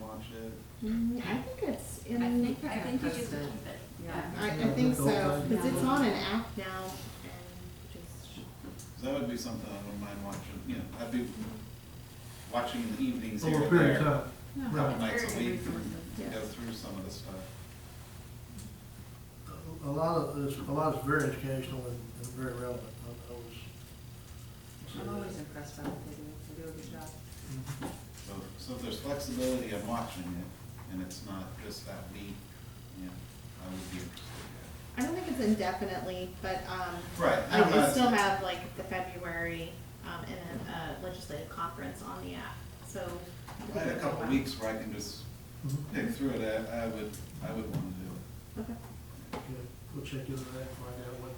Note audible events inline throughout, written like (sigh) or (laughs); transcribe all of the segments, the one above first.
launched it. Mm, I think it's I in. think, I think you That's should keep good. it. Yeah. I, I think so, because it's Yeah. on an app now and just. So that would be something I wouldn't mind watching, you know, I'd be watching in the evenings here Over a and period of there. time. No, Right. Couple nights a Very week to Yeah. go through some of the stuff. A lot of, it's, a lot is very educational and, and very relevant, I I always. say I'm that. always impressed by what they do, they do a good job. Mm-hmm. So, so if there's flexibility, I'm watching it, and it's not just that week, you know, I would be interested in I don't think it's indefinitely, but, um. Right, I Like, don't know. we still have like the February, um, and then a legislative conference on the app, so. that. If I had a couple weeks where I can just Mm-hmm. Mhm. pick through it, I, I would, I would wanna do it. Okay. Okay, We'll check into that, and find out what,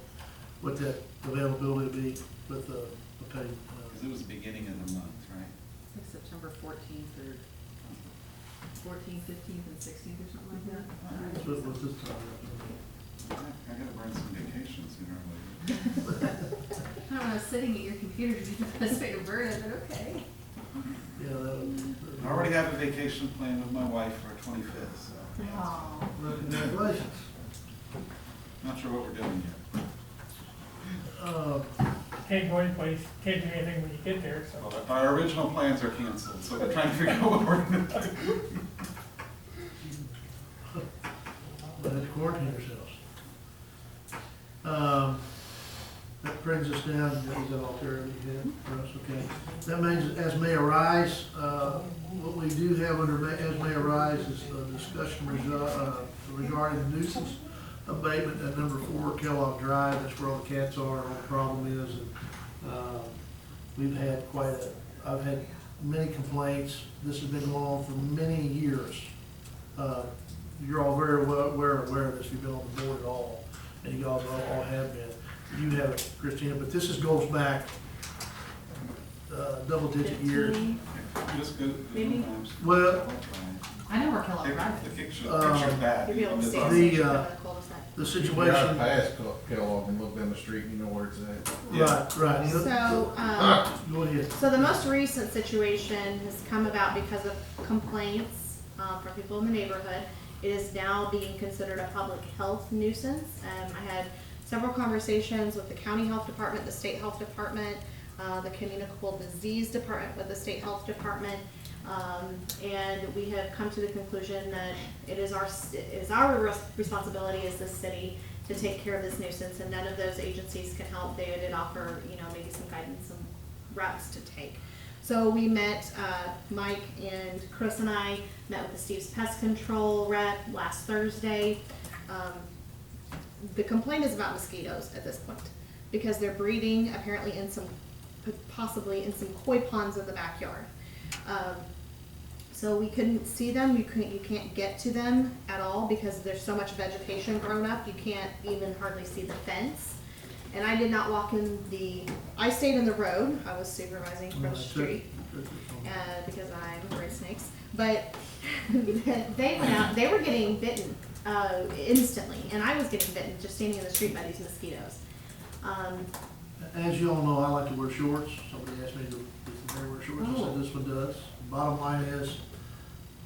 what that availability will be with the, the pay. uh, Because it was the beginning of the month, right? I think September fourteenth or fourteenth, fifteenth, and sixteenth or something like that. That's what it was this time. I I gotta burn some vacation sooner or later. I don't know, sitting at your computer (laughs) to be the best way to burn it, but okay. Yeah, that was. I already have a vacation planned with my wife for twenty-fifth, so Oh. Well, Congratulations. not sure what we're doing yet. Uh, Can't go anyplace, can't do anything when you get there, so. Well, Our original plans are canceled, so we're trying to figure out what we're gonna do. But it's quarantine ourselves. Um, That brings us down, that was all Terry had for us, okay. That means as may arise, uh, what we do have under ma- as may arise is a discussion resu- uh, regarding nuisance abatement at number four Kellogg Drive, that's where all the cats are, and all the problem is. and, uh, We've had quite a, I've had many complaints, this has been going on for many years. Uh, you're all very well, aware, aware of this, you've been on the board at all, and you guys all, all have been. You have, it, Christina, but this is, goes back, uh, double digit years. Fifteen. Just go. Maybe- Well- I know where Kellogg Take Drive the is. picture, Um, picture back. Uh, You'll be able to It's see. awesome. The, uh, cul-de-sac. The You drive situation, right, past Kel- Kellogg and look down the street, you know where it's at. Yeah. right, you know- So, Ah. um, go ahead. So the most recent situation has come about because of complaints uh, from people in the neighborhood. It is now being considered a public health nuisance. Um, I had several conversations with the county health department, the state health department, uh, the communicable disease department with the state health department. Um, and we have come to the conclusion that it is our, it is our res- responsibility as the city to take care of this nuisance and none of those agencies can help. They did offer, you know, maybe some guidance and routes to take. So we met, uh, Mike and Chris and I met with the Steve's Pest Control rep last Thursday. Um, the complaint is about mosquitoes at this point because they're breeding apparently in some, possibly in some koi ponds in the backyard. Um, so we couldn't see them. You couldn't. You can't get to them at all because there's so much vegetation grown up. You can't even hardly see the fence. And I did not walk in the. I stayed in the road. I was supervising from the street uh, because I'm afraid of snakes. But (laughs) they went out. They were getting bitten uh, instantly, and I was getting bitten just standing in the street by these mosquitoes. Um, As you all know, I like to wear shorts. Somebody asked me, to does anybody wear shorts? I Oh. said, this one does. Bottom line is,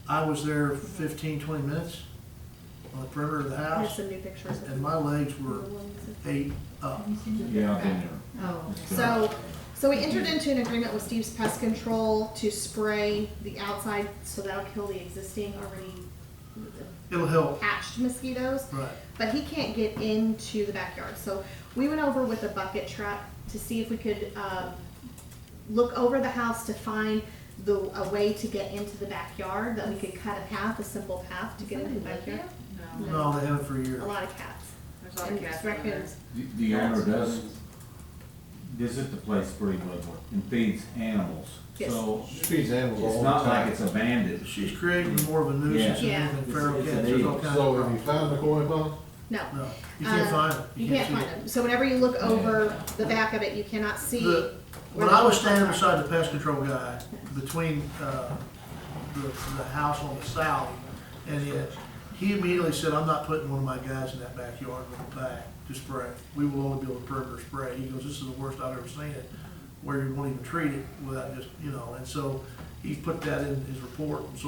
I was there 15, 20 minutes on the perimeter of the I have house, some new pictures. of and my legs were them. eight up. Yeah, I've been there. Oh, okay. So, so we entered into an agreement with Steve's Pest Control to spray the outside, so that'll kill the existing already It'll help, hatched mosquitoes, right. but he can't get into the backyard. So we went over with a bucket trap to see if we could, uh, look over the house to find the, a way to get into the backyard, that we could cut a path, a simple path to get into the backyard. No, No, they haven't for years. A lot of cats. there's a lot of And gas in there. raccoons. The- The owner does visit the place pretty regularly and feeds animals. Yes. So She feeds animals all it's the not like time. it's abandoned. She's creating more of a nuisance than Yeah. anything feral It's- it's cats. an There's all evil. kinds So have you of found the problems. koi pond? No, No, you can't Uh, find them. you can't see find them. So whenever you look over the back of it, you cannot see. The- where When I the- was standing beside the pest control guy, between, uh, the, the house on the south and the, he immediately said, I'm not putting one of my guys in that backyard with a bag to spray. We will only be able to perimeter spray. He goes, this is the worst I've ever seen it, where you won't even treat it without just, you know, and so he put that in his report. And so